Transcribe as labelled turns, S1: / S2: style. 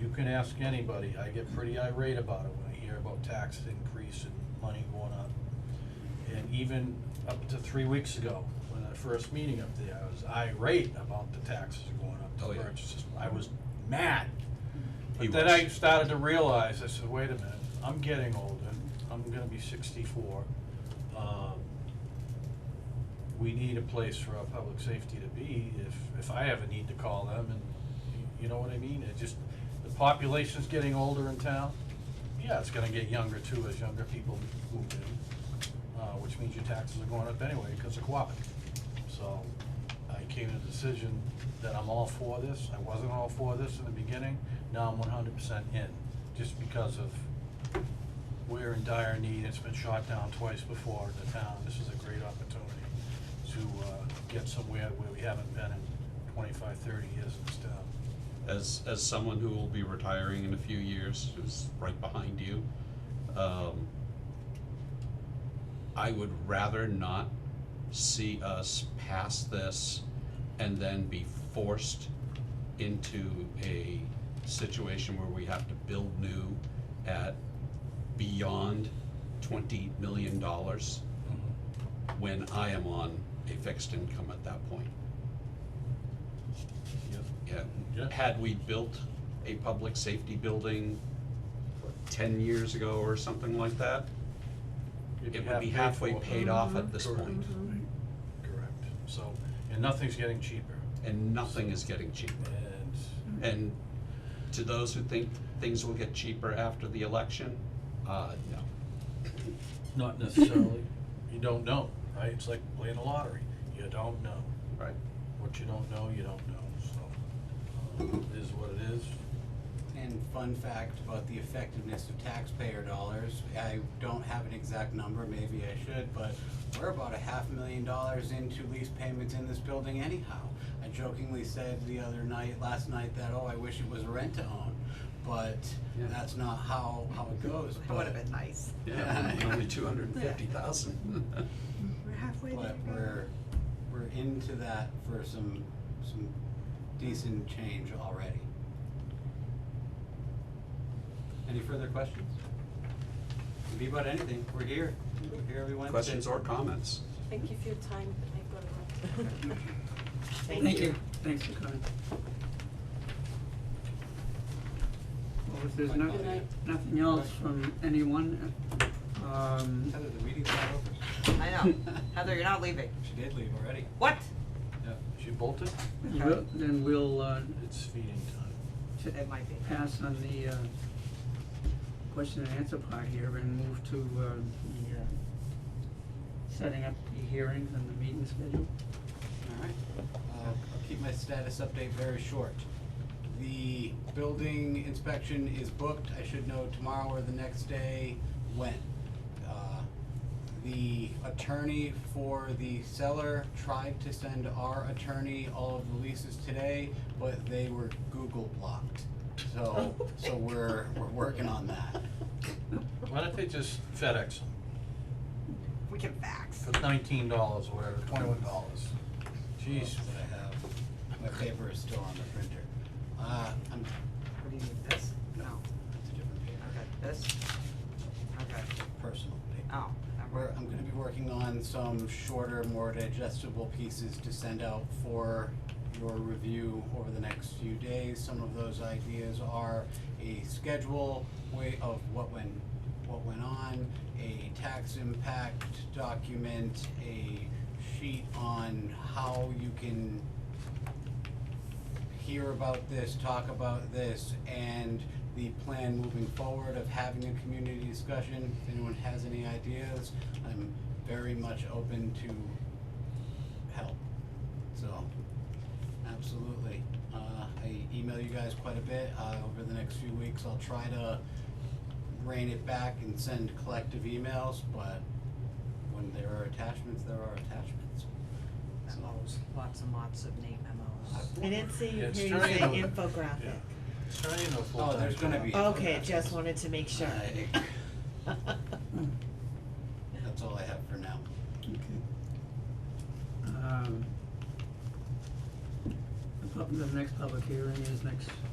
S1: you can ask anybody, I get pretty irate about it when I hear about tax increase and money going up. And even up to three weeks ago, when that first meeting up there, I was irate about the taxes going
S2: Oh,
S1: up
S2: yeah.
S1: to purchases, I was mad.
S2: He
S1: But then
S2: was.
S1: I started to realize, I said, wait a minute, I'm getting older, I'm gonna be sixty-four. Um, We need a place for our public safety to be if, if I ever need to call them and, you- you know what I mean? It just, the population's getting older in town. Yeah, it's gonna get younger too as younger people move in, uh, which means your taxes are going up anyway because of cooperative. So I came to the decision that I'm all for this. I wasn't all for this in the beginning. Now I'm one hundred percent in, just because of we're in dire need. It's been shot down twice before in the town. This is a great opportunity to, uh, get somewhere where we haven't been in 25, 30 years in this town.
S2: as as someone who will be retiring in a few years, who's right behind you, um, I would rather not see us pass this and then be forced into a situation where we have to build new at beyond twenty million dollars Mm-hmm. when I am on a fixed income at that point.
S1: Yep. Yeah.
S2: Yeah, had we built a public safety building what, ten years ago or something like that,
S1: You'd
S2: it would be halfway
S1: for it.
S2: paid off at this
S1: Correct.
S2: point.
S1: Correct. So, and nothing's getting cheaper.
S2: And nothing is getting cheaper.
S1: And
S2: And to those who think things will get cheaper after the election, uh, no.
S1: Not necessarily. You don't know, right? It's like playing the lottery. You don't know.
S2: Right.
S1: What you don't know, you don't know, so, um, it is what it is.
S3: And fun fact about the effectiveness of taxpayer dollars, I don't have an exact number, maybe I should, but we're about a half million dollars into lease payments in this building anyhow. I jokingly said the other night, last night, that, oh, I wish it was rent to own, but
S2: Yeah.
S3: that's not how, how it goes,
S4: That would have
S3: but-
S4: been nice.
S2: Yeah, only two hundred and fifty thousand.
S4: We're halfway there.
S3: But we're, we're into that for some, some decent change already. Any further questions? Could be about anything, we're here, we're here every Wednesday.
S2: Questions or comments?
S5: Thank you for your time. I've got to run.
S4: Thank you.
S6: Thanks for coming. Well, if there's no,
S3: Good
S5: night.
S6: nothing else from anyone, um,
S3: Heather, the meeting's not over.
S4: I know. Heather, you're not leaving.
S3: She did leave already.
S4: What?
S3: Yeah.
S1: She bolted,
S6: we'll- then we'll, uh,
S1: it's feeding time.
S6: t-
S4: It might be.
S6: pass on the, uh, question and answer part here and move to, uh, the, uh, setting up the hearings and the meeting schedule.
S3: Alright, I'll, Uh, I'll keep my status update very short. The building inspection is booked, I should know tomorrow or the next day when. Uh, The attorney for the seller tried to send our attorney all of the leases today, but they were Google blocked. So, so we're, we're working on that.
S1: Why don't they just FedEx them
S4: We can fax.
S1: for nineteen dollars or whatever, twenty-one dollars? Jeez,
S3: What I have, my paper is still on the printer. Uh, I'm,
S4: What do you need? This? No.
S3: it's a different paper,
S4: Okay. This? Okay.
S3: personal paper.
S4: Oh. never
S3: We're,
S4: mind.
S3: I'm gonna be working on some shorter, more digestible pieces to send out for your review over the next few days. Some of those ideas are a schedule, way of what went, what went on, a tax impact document, a sheet on how you can hear about this, talk about this, and the plan moving forward of having a community discussion. If anyone has any ideas, I'm very much open to help. So, absolutely. Uh, I email you guys quite a bit, uh, over the next few weeks, I'll try to rein it back and send collective emails, but when there are attachments, there are attachments.
S4: Memos, lots and lots of neat memos.
S3: I've
S7: I didn't see you
S1: It's
S7: here, you
S1: turning
S7: say
S1: into-
S7: infographic.
S1: yeah. It's turning into a full-time
S3: Oh, there's gonna
S1: job.
S3: be.
S7: Okay, just wanted to make sure.
S3: I- That's all I have for now.
S6: Okay. Um, the pub- the next public hearing is next